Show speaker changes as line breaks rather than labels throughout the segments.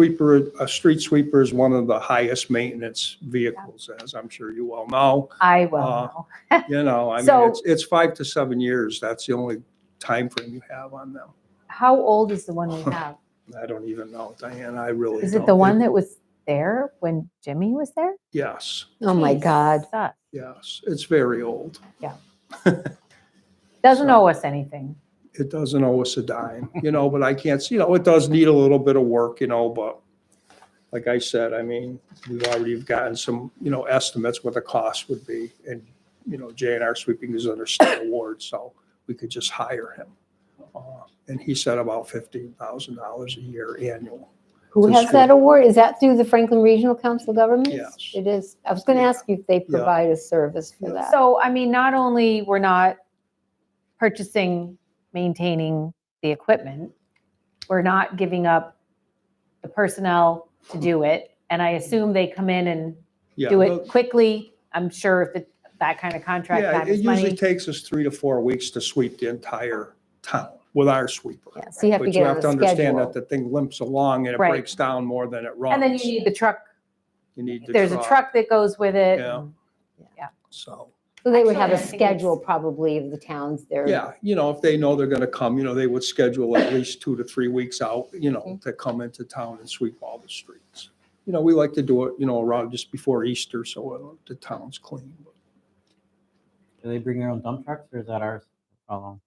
Sweeper, a street sweeper is one of the highest maintenance vehicles, as I'm sure you all know.
I will
Uh,
know.
You know, I mean,
So-
it's, it's five to seven years. That's the only time frame you have on them.
How old is the one we have?
I don't even know, Diane, I really
Is
don't.
it the one that was there when Jimmy was there?
Yes,
Oh my
Jeez,
God.
sucks.
yes. It's very old.
Doesn't
So-
owe us anything.
It doesn't owe us a dime, you know, but I can't, see. you know, it does need a little bit of work, you know, but like I said, I mean, we've already gotten some, you know, estimates what the cost would be. And, you know, J and R Sweeping is under state award, so we could just hire him. Uh, And he said about fifteen thousand dollars a year annual.
Who
Just
has that award? Is that through the Franklin Regional Council of Governments?
Yes.
It is. I was going to
Yeah.
ask you if they
Yeah.
provide a service for that.
So, I mean, not only we're not purchasing, maintaining the equipment, we're not giving up the personnel to do it. And I assume they come in and
Hmm. Yeah,
do
no-
it quickly. I'm sure if it, that kind of contract
Yeah, it
times
usually
money.
takes us three to four weeks to sweep the entire town with our sweeper.
Yeah, So you have
But
to
you
get on
have to
a
understand that
schedule.
the thing limps along and it
Right.
breaks down more than it runs.
And then you need the truck.
You need the
There's a truck that goes with it.
Yeah. So,
So they would have a
Actually, I think it's-
schedule probably of the towns there.
yeah, you know, if they know they're gonna come, you know, they would schedule at least two to three weeks out, you know,
Mhm.
Mm-hmm.
to come into town and sweep all the streets. You know, we like to do it, you know, around just before Easter, so uh, the town's clean.
Do they bring their own dump trucks or is that ours? Oh,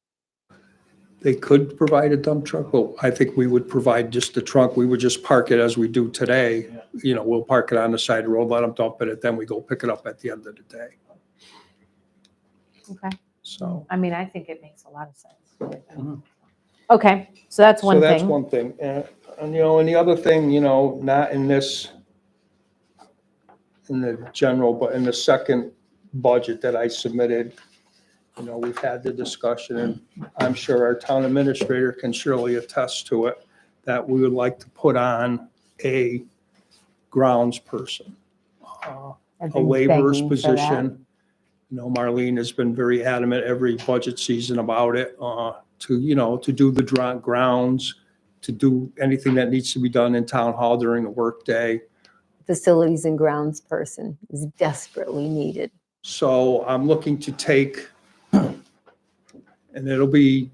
They could provide a dump truck, but I think we would provide just the trunk. We would just park it as we do today.
Yeah.
You know, we'll park it on the side of the road, let them dump it, and then we go pick it up at the end of the day.
Okay.
So.
I mean, I think it makes a lot of sense.
Mhm.
Okay, so that's one
Mm-hmm. So that's
thing.
one thing. And, and, you know, and the other thing, you know, not in this, in the general, but in the second budget that I submitted, you know, we've had the discussion, and I'm sure our town administrator can surely attest to it, that we would like to put on a grounds person, uh,
I've
a
been
laborer's
begging for that.
position. You know, Marlene has been very adamant every budget season about it, uh, to, you know, to do the dra- grounds, to do anything that needs to be done in town hall during the workday.
Facilities and grounds person is desperately needed.
So I'm looking to take, and it'll be,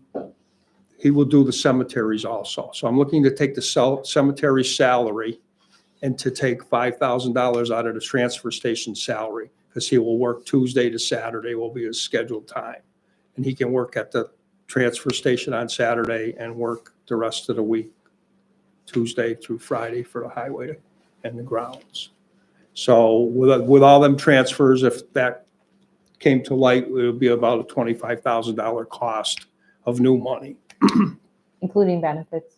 he will do the cemeteries also. So I'm looking to take the cel- cemetery salary and to take five thousand dollars out of the transfer station salary, because he will work Tuesday to Saturday will be his scheduled time. And he can work at the transfer station on Saturday and work the rest of the week, Tuesday through Friday for the highway and the grounds. So with, with all them transfers, if that came to light, it would be about a twenty-five thousand dollar cost of new money.
Including benefits.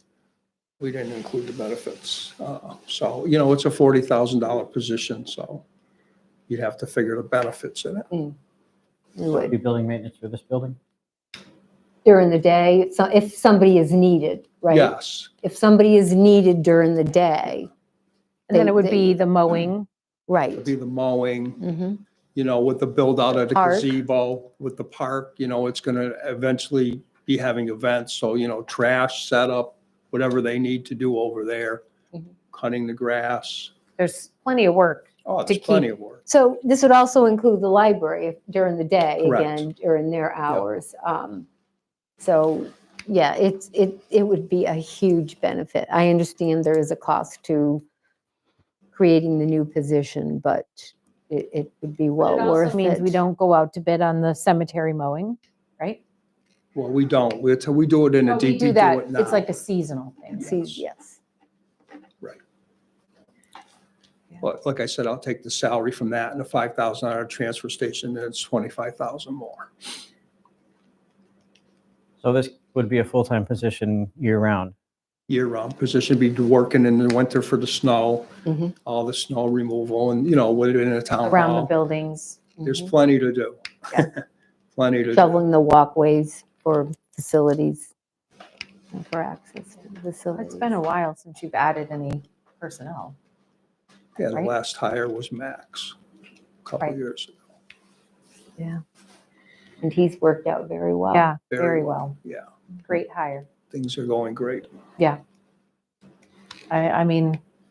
We didn't include the benefits. Uh, So, you know, it's a forty thousand dollar position, so you'd have to figure the benefits in it.
We
Would
would.
be building maintenance for this building?
During the day, so if somebody is needed, right?
Yes,
If somebody is needed during the day,
And then it would
They-
be the mowing.
right.
it'd be the mowing,
Mhm.
you know, with the build out of the
Park.
gazebo, with the park, you know, it's gonna eventually be having events, so, you know, trash setup, whatever they need to do over there,
Mm-hmm.
Mhm.
cutting the grass.
There's plenty of work.
Oh,
to
it's plenty
keep-
of work.
So this would also include the library if- during the day,
Correct. Mm.
again, during their hours. Um, So, yeah, it's, it, it would be a huge benefit. I understand there is a cost to creating the new position, but it, it would be well
It also
worth it.
Means we don't go out to bid on the cemetery mowing, right?
Well, we don't, we, we do it in a
But we
DP, do
do
it
that.
now.
It's like a seasonal thing.
See, yes.
But like I said, I'll take the salary from that and the five thousand dollar transfer station, and it's twenty-five thousand more.
So this would be a full-time position year-round?
Year-round position, be working in the winter for the snow,
Mhm.
all the snow removal and, you know, within a town
Mm-hmm. Around the mm-hmm.
hall.
buildings.
There's
Mhm.
plenty to do. Plenty to do.
Mm-hmm. Shoveling the walkways for facilities, and for access to the facilities.
It's been a while since you've added any personnel.
Yeah, the
right?
last hire was Max, a couple
Right.
years. ago.
And he's worked out very well.
Yeah,
Very
very well.
yeah.
Great hire.
Things are going great.
I, I mean,